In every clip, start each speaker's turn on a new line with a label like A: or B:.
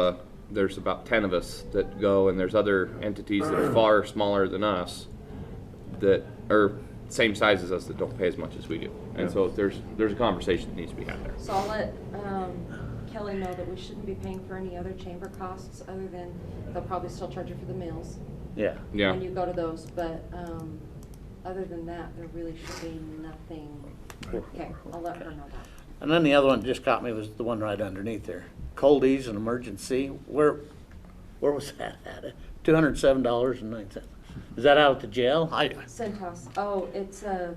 A: uh, there's about 10 of us that go, and there's other entities that are far smaller than us that are same size as us that don't pay as much as we do. And so there's there's a conversation that needs to be had there.
B: So I'll let um, Kelly know that we shouldn't be paying for any other chamber costs other than they'll probably still charge you for the meals
C: Yeah.
A: Yeah.
B: when you go to those, but um, other than that, there really should be nothing. Okay, I'll let her know that.
C: And then the other one that just caught me was the one right underneath there. Coldies and emergency, where, where was that at? Two hundred and seven dollars and nine cents. Is that out at the jail? I,
B: Centos, oh, it's a,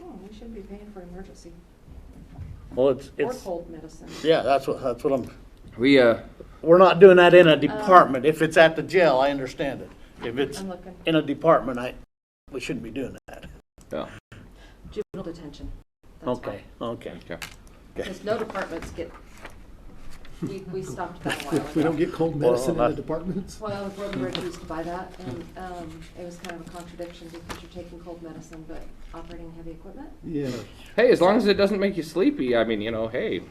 B: oh, we shouldn't be paying for emergency
C: well, it's,
B: or
C: it's,
B: cold medicine.
C: yeah, that's what, that's what I'm,
A: We uh,
C: we're not doing that
B: Uh,
C: in a department. If it's at the jail, I understand it. If it's
B: I'm looking,
C: in a department, I, we shouldn't be doing that.
A: yeah,
B: juvenile detention. That's why.
C: Okay, okay.
A: okay.
B: Because no departments get, we, we stopped that a while ago.
D: We don't get cold
C: Well,
D: medicine in the
C: that's-
D: departments?
B: Well,
A: Hmm.
B: the Board of Directors used to buy that, and um, it was kind of a contradiction because you're taking cold medicine but operating heavy equipment.
D: Yeah.
A: Hey, as long as it doesn't make you sleepy, I mean, you know, hey,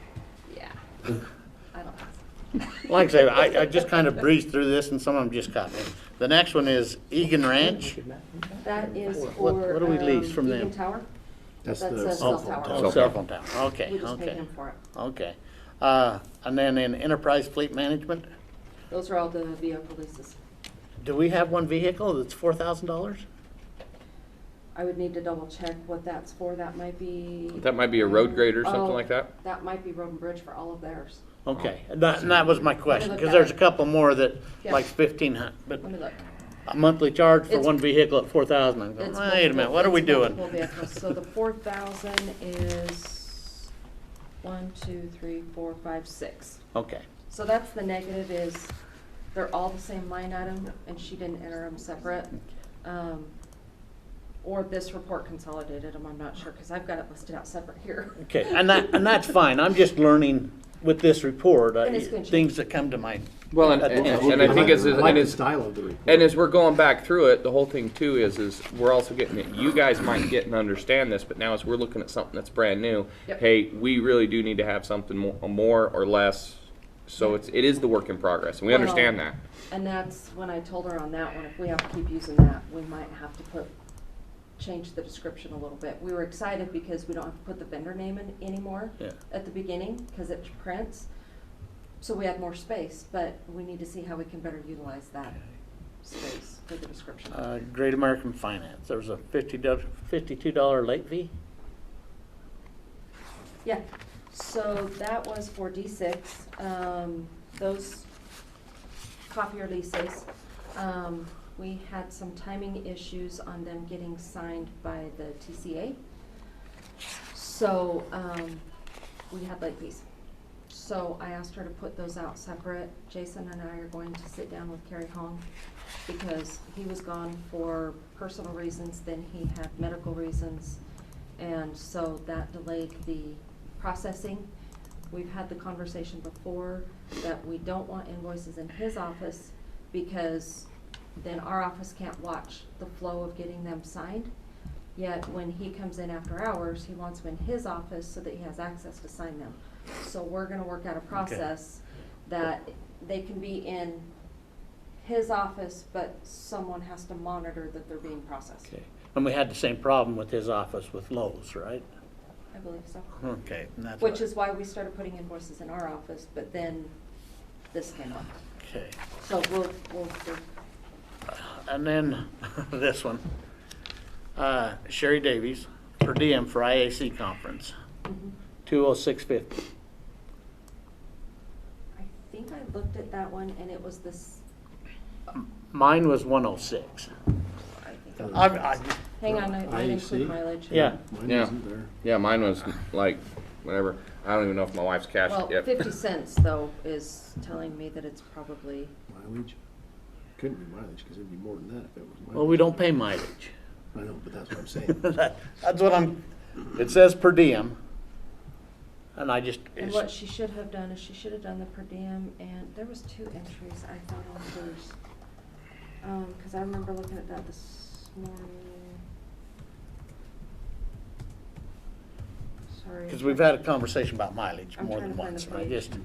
B: Yeah. I don't,
C: Like I say, I, I just kind of breezed through this and some of them just caught me. The next one is Egan Ranch.
B: that is
C: What-
B: for.
C: what do we lease
B: um,
C: from them?
B: Egan Tower.
D: That's
B: That's
D: the
B: a cell
D: cell phone
B: tower.
D: tower.
C: Oh, cell phone tower, okay,
B: We just pay
C: okay,
B: him for it.
C: okay. Uh, and then in enterprise fleet management,
B: Those are all the vehicle leases.
C: do we have one vehicle that's four thousand dollars?
B: I would need to double check what that's for. That might be.
A: that might be a road grade or something
B: Oh,
A: like that.
B: That might be Road and Bridge for all of theirs.
C: Okay, and that, and that was my question,
B: look
C: because
B: at
C: there's a
B: it.
C: couple more that,
B: Yeah.
C: like fifteen hundred, but
B: Let me look.
C: a monthly charge for
B: It's-
C: one vehicle at four thousand, I'm going,
B: It's
C: wait a minute,
B: multiple-
C: what are we
B: it's
C: doing?
B: multiple vehicles. So the four thousand is one, two, three, four, five, six.
C: Okay,
B: So that's the negative is they're all the same line item and she didn't enter them separate. Um, Or this report consolidated them, I'm not sure, because I've got it listed out separate here.
C: okay, and that, and that's fine, I'm just learning with this report, uh,
B: And it's gonna change.
C: things that come to mind.
A: Well, and,
C: At the
A: and, and
C: end.
A: I think as
D: I like
A: and
D: the
A: as
D: style of the report.
A: And as we're going back through it, the whole thing too is is we're also getting it. You guys might get and understand this, but now as we're looking at something that's brand new,
B: Yep.
A: hey, we really do need to have something more, more or less. So it's it is the work in progress, and we
B: Well-
A: understand that.
B: Um, And that's when I told her on that one, if we have to keep using that, we might have to put, change the description a little bit. We were excited because we don't have to put the vendor name in anymore
C: Yeah.
B: at the beginning, because it prints. So we have more space, but we need to see how we can better utilize that space for the description.
C: Uh, Great American Finance, there was a fifty dollar, fifty-two dollar late fee?
B: Yeah, so that was for D six, um, those copier leases. Um, we had some timing issues on them getting signed by the TCA. So, um, we had late fees. So I asked her to put those out separate. Jason and I are going to sit down with Carrie Hong because he was gone for personal reasons, then he had medical reasons. And so that delayed the processing. We've had the conversation before that we don't want invoices in his office because then our office can't watch the flow of getting them signed. Yet when he comes in after hours, he wants them in his office so that he has access to sign them. So we're gonna work out a process that they can be in his office, but someone has to monitor that they're being processed.
C: Okay, and we had the same problem with his office with Lowe's, right?
B: I believe so.
C: Okay, and that's.
B: Which
C: what-
B: is why we started putting invoices in our office, but then this came up.
C: Okay, Uh,
B: So we'll, we'll, do-
C: and then this one. Uh, Sherry Davies, per diem for IAC conference,
B: mhm.
C: two oh six fifty.
B: I think I looked at that one and it was this,
C: Mine was one oh six.
B: I think,
D: Uh,
B: I-
C: I'm, I,
B: hang on, I I didn't
D: IEC?
B: include mileage.
C: yeah,
D: Mine
A: Yeah.
D: isn't there.
A: Yeah, mine was like whatever. I don't even know if my wife's cashed
B: Well,
A: it yet.
B: fifty cents though is telling me that it's probably,
D: Mileage? Couldn't be mileage, because it'd be more than that if it was mileage.
C: well, we don't pay mileage.
D: I know, but that's what I'm saying.
C: That's what I'm, it says per diem. And I just,
B: and what she should have done is she should have done the per diem and there was two entries I thought on hers. Um, cause I remember looking at that this morning. Sorry.
C: because we've had a conversation about mileage
B: I'm
C: more
B: trying
C: than
B: to find
C: once,
B: the
C: and I
B: page.
C: just,